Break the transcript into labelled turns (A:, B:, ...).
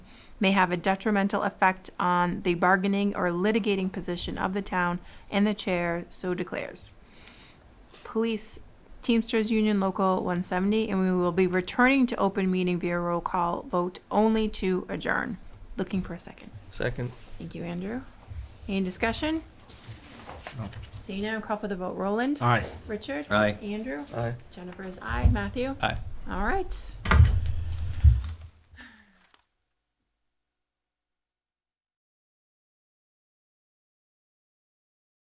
A: may have a detrimental effect on the bargaining or litigating position of the town, and the chair so declares. Police Teamsters Union Local one seventy, and we will be returning to open meeting via roll call vote only to adjourn. Looking for a second.
B: Second.
A: Thank you, Andrew. Any discussion?
C: No.
A: Seeing none, call for the vote. Roland?
C: Aye.
A: Richard?
D: Aye.
A: Andrew?
B: Aye.
A: Jennifer is aye. Matthew?
D: Aye.
A: All right.